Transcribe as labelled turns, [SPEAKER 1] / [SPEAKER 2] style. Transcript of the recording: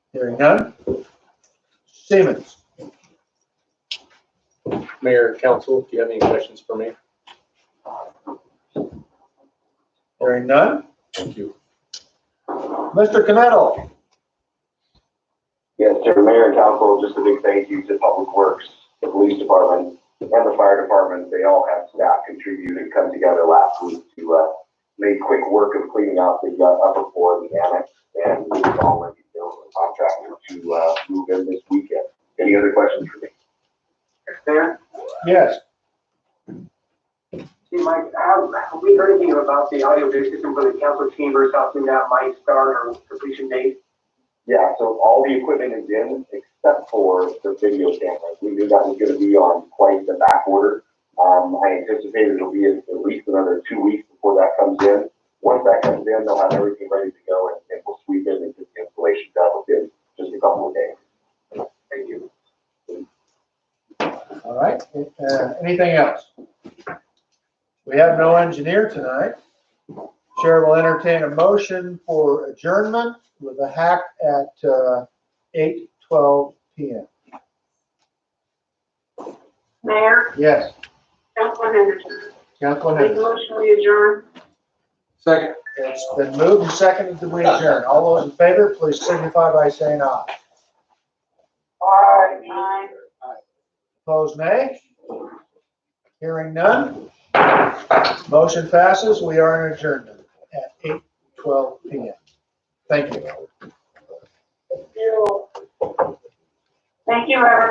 [SPEAKER 1] Hearing none. Simmons,
[SPEAKER 2] Mayor, council, do you have any questions for me?
[SPEAKER 1] hearing none.
[SPEAKER 2] Thank you.
[SPEAKER 1] Mr. Canettle,
[SPEAKER 3] Yes, sir, Mayor, Council, just a big thank you to Public Works, the Police Department, and the Fire Department. They all have staff contribute and come together last week to, uh, make quick work of cleaning out the, uh, upper floor of the annex. And we all let you know, the contractor to, uh, move in this weekend. Any other questions for me?
[SPEAKER 4] Mayor,
[SPEAKER 1] yes.
[SPEAKER 4] see, Mike, have, have we heard anything about the audio visual system for the council chambers, how soon that might start or completion date?
[SPEAKER 3] Yeah, so all the equipment is in except for the video cameras. We knew that was gonna be on quite the back order. Um, I anticipate it'll be at at least another two weeks before that comes in. Once that comes in, they'll have everything ready to go and, and we'll sweep in and get the installation done within just a couple of days.
[SPEAKER 4] Thank you.
[SPEAKER 1] All right, uh, anything else? We have no engineer tonight. Chair will entertain a motion for adjournment with a hack at uh, 8:12 PM.
[SPEAKER 5] Mayor,
[SPEAKER 1] Yes,
[SPEAKER 5] Councilman Henderson,
[SPEAKER 1] Councilman
[SPEAKER 5] make a
[SPEAKER 1] Henderson.
[SPEAKER 5] motion we adjourn.
[SPEAKER 2] Second.
[SPEAKER 1] It's been moved and seconded that we adjourn. All those in favor, please signify by saying aye.
[SPEAKER 5] Aye.
[SPEAKER 1] Opposed, nay? Hearing none. Motion passes. We are in adjournment at 8:12 PM. Thank you.
[SPEAKER 5] Thank you, everyone.